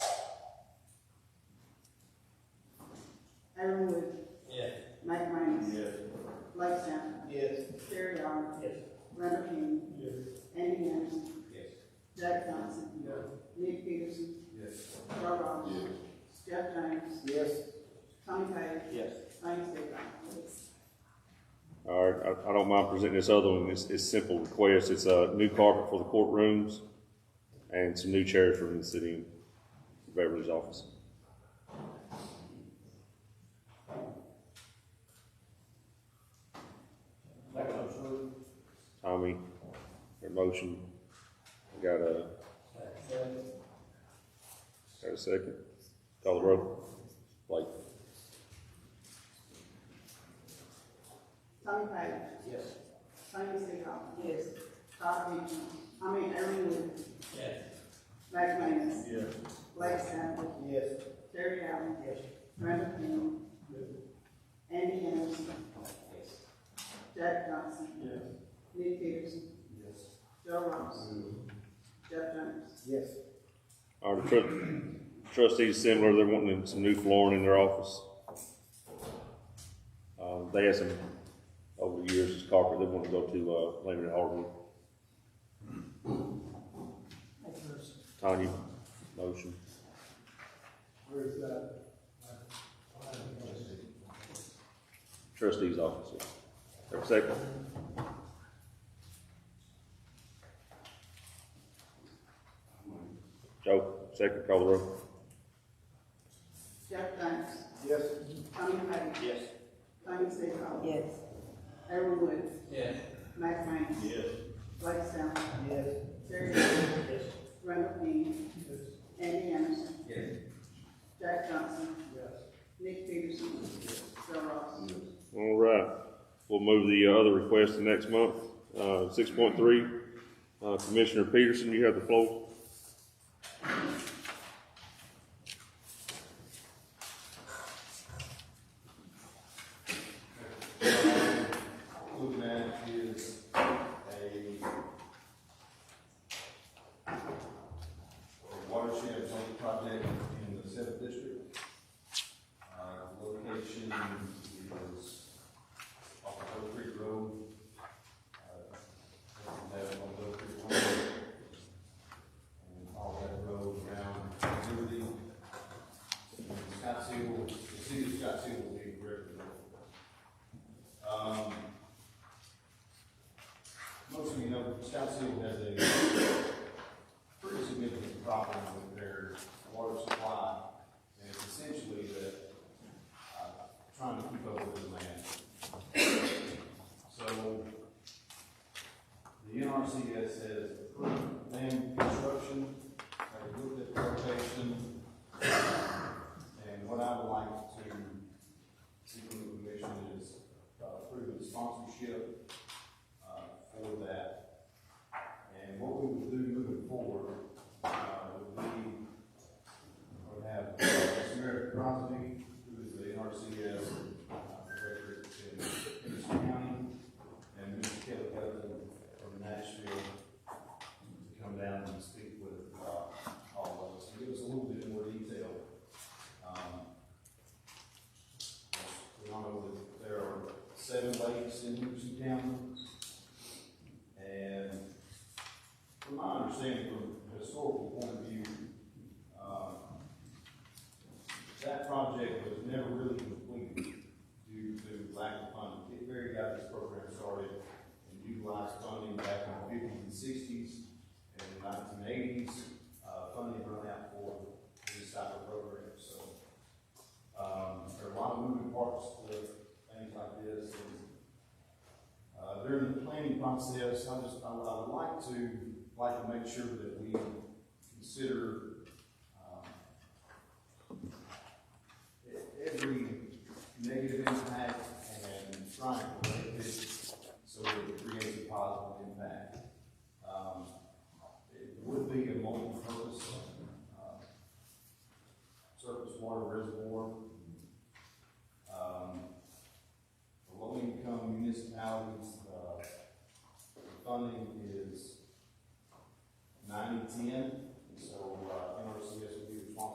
Randall King, Yes. Andy Anderson, Yes. Jack Johnson, Yes. Nick Peterson, Yes. Carl Ross, Jeff James, Yes. Tommy Page, Yes. Lane Stigall. All right, I, I don't mind presenting this other one, it's, it's simple request, it's a new carpet for the courtrooms and some new chairs for the city Beverly's office. Make a motion. Tommy, your motion, We got a, Second. got a second? Call the roll. Blake? Tommy Page, Yes. Lane Stigall. Yes. Todd Beechman, I mean, Aaron Wood, Yes. Mac Manus, Yes. Blake Sample, Yes. Terry Allen, Yes. Randall King, Andy Anderson, Yes. Jack Johnson, Yes. Nick Peterson, Yes. Joe Ross, Jeff James. Yes. All right, tru- trustees similar, they're wanting some new flooring in their office. Um, they had some, over the years, this carpet, they want to go to, uh, Lehman and Hardman. Tanya, motion. Where's that? trustee's office. Have a second. Joe, second, call the roll. Jeff James, Yes. Tommy Page, Yes. Lane Stigall. Yes. Aaron Wood, Yes. Mac Manus, Yes. Blake Sample, Yes. Terry Allen, Yes. Randall King, Yes. Andy Anderson, Jack Johnson, Yes. Nick Peterson, Joe Ross. All right, we'll move the uh, other request to next month. Uh, six point three, uh, Commissioner Peterson, you have the floor. Looking at is a a watershed zone project in the seventh district. Uh, location is off of Oak Creek Road. Uh, that's on Oak Creek Road. And all that road around Liberty. Scottsdale, the city of Scottsdale will be directly north. Um, most of you know, Scott City has a pretty significant problem with their water supply, and it's essentially that, uh, trying to keep up with the land. So, the NRCS has approved land construction, they looked at the location, and what I would like to see from the commission is uh, approve the sponsorship uh, for that. And what we will do moving forward, uh, would be, would have Samaritan Crosby, who is the NRCS uh, director in Henderson County, and Mr. Kelly Copeland from Nashville, to come down and speak with, uh, all of us, and give us a little bit more detail. Um, We all know that there are seven lakes in Henderson County, and from my understanding, from a historical point of view, um, that project was never really completed due to lack of funding. Kit Berry got this program started and utilized funding back in the fifties and sixties and the nineteen eighties. Uh, funding run out for this type of program, so. Um, there are a lot of moving parts to things like this and uh, during the planning process, I just, I would, I would like to, like to make sure that we consider, um, e- every negative impact and try to correct it so that it creates a positive impact. Um, it would be a multi-purpose, uh, surface water reservoir, Um, uh, uh,